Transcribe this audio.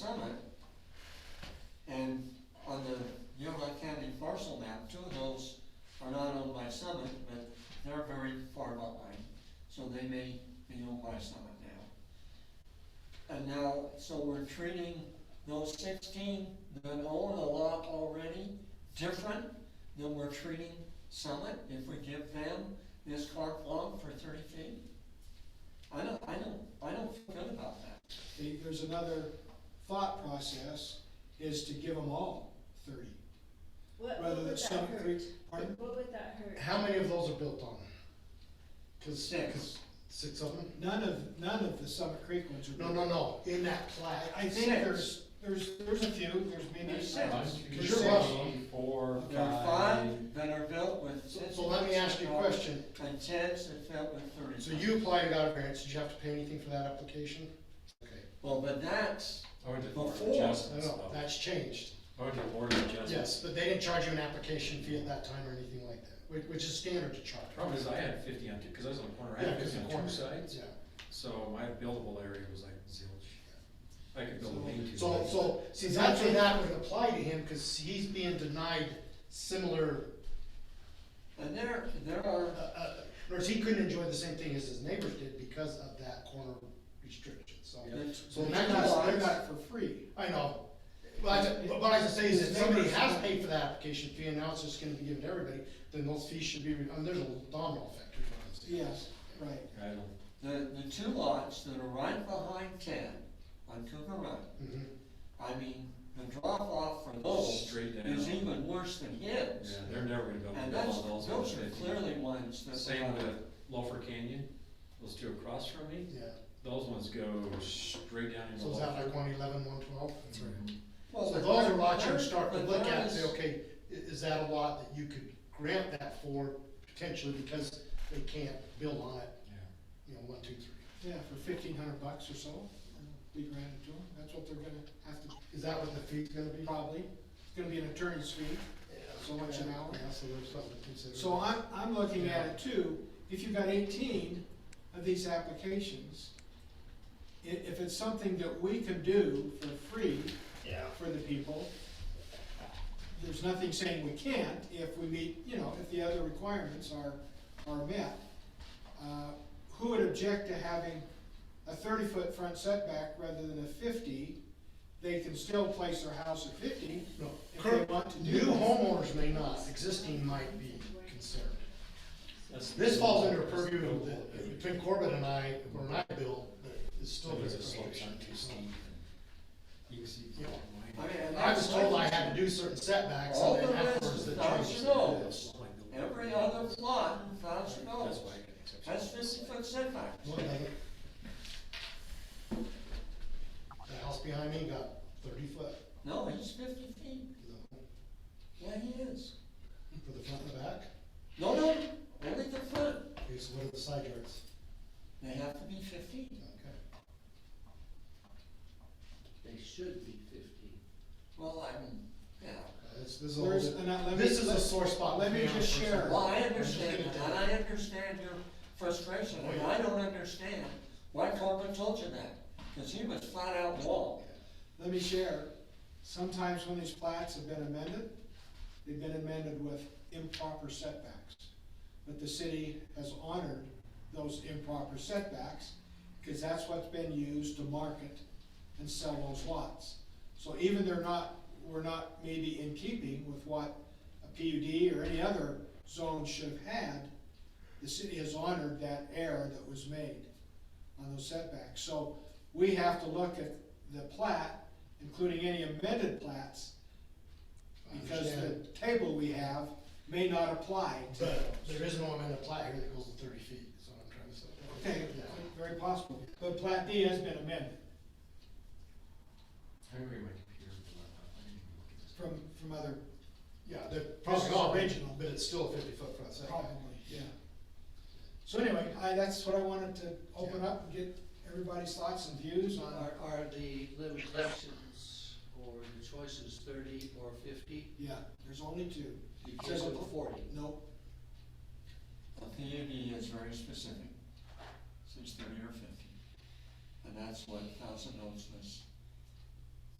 Summit. And on the Yuma County parcel map, two of those are not owned by Summit, but they're very far behind, so they may be owned by Summit now. And now, so we're treating those sixteen that own a lot already different than we're treating Summit if we give them this carte blanche for thirty feet? I don't, I don't, I don't feel good about that. The- There's another thought process, is to give them all thirty. What, Rather what than would some that hurt? three- Pardon? What would that hurt? How many of those are built on? Cause, Six. 'cause six of them? None of, none of the Summit Creek ones are. No, no, no, in that plat. I I think Six. there's, there's, there's a few, there's maybe. There's six. Cause Because you're you're right. wrong. Four, There are five that are built with So, six. so let me ask you a question. And tens that fit with thirty. So you apply and got a variance, did you have to pay anything for that application? Okay, Well, but that's, Or oh, did Before. board no, adjustments, no, though. that's changed. Or oh, did board adjustments. Yes, but they didn't charge you an application fee at that time or anything like that, which, which is standard to charge. Problem is, I had fifty on two, cause I was on the corner, I Yeah, had 'cause fifty the on corner- two sides, Yeah, so my buildable area was like zilch. I could build a lean-to. so, but- so, see, that's where that would apply to him, cause he's being denied similar, and there, there uh, are, uh, in other words, he couldn't enjoy the same thing as his neighbors did because of that corner restriction, so. there's. So in They that case, got, they're they not got it for free. I know, but I, ju- but what I was saying is, if somebody has paid for that application fee, and now it's just gonna be given to everybody, then those fees should be, re- I mean, there's a domino effect. is what I'm saying. Yes, right. I don't, The, the two lots that are right behind ten on Cougar Run, Mhm. I mean, the drop off for those straight down. is even worse than Yeah, his. they're never gonna build And all that's, of those. on those are 50. clearly ones that. Same with Loafer Canyon, those two across from me, Yeah, those ones go straight down into so is that Loafer. like one eleven, one twelve? That's right. Well, So but those are there- lots you there- would start to but look there at, and say, is- okay, i- is that a lot that you could grant that for potentially because they can't build on it, Yeah. you know, one, two, three? Yeah, for fifteen hundred bucks or so, be granted to them. That's what they're gonna have to, Is that what the fee's gonna be? probably. It's gonna be an attorney's fee. So much an hour? Yeah, so there's something to consider. So I'm, I'm looking at it too, if you've got eighteen of these applications, i- if it's something that we can do for free Yeah. for the people, there's nothing saying we can't if we meet, you know, if the other requirements are, are met. Uh, Who would object to having a thirty-foot front setback rather than a fifty? They can still place their house at fifty, No, If they current, want to do new that. homeowners may not, existing might be concerned. That's- This falls under that's purview of buildable. the, between Corbett and I, or and I bill, but it's So still. there's a a slope on too steep. and You can see. Yeah. I mean, and I was that's told like- I had to do certain setbacks, All and the then rest afterwards is the thousand changes. dollars. Yes. Every other lot, in thousand That's dollars, why I got an exception. that's fifty foot setback. Look at it. The house behind me got thirty foot, No, he's fifty feet, you know, yeah, he is. for the front and the back, No, no, only the front, okay, so what are the side yards? they have to be fifteen. Okay. They should be fifteen. Well, I mean, yeah, Uh, This, this is a little Where's, bit- and I- let me- This is a let- sore spot. let me for just personally. share. well, I understand that, and I understand your frustration, and I don't understand why Corbin told you that, cause he was flat out wrong. Let me share, sometimes when these plats have been amended, they've been amended with improper setbacks. But the city has honored those improper setbacks, because that's what's been used to market and sell those lots. So even they're not, we're not maybe in keeping with what a PUD or any other zone should have had, the city has honored that error that was made on those setbacks. So we have to look at the plat, including any amended plats, I because the understand. table we have may not apply to those. But there is no amendment plat here that goes to thirty feet, is what I'm trying to say. Okay, very possible, but plat D has been amended I remember my computer. blew up. I didn't even look at this. from, from other, Yeah, they're probably all original, but it's still a fifty foot front setback. probably, yeah. So anyway, I, that's what I wanted to open up and get everybody's thoughts and views on our, Are, are the limitations or the choices thirty or fifty? yeah, there's only two, You can't go to forty. no, A PUD is very specific, so it's thirty or fifty, and that's what Thousand Oaks was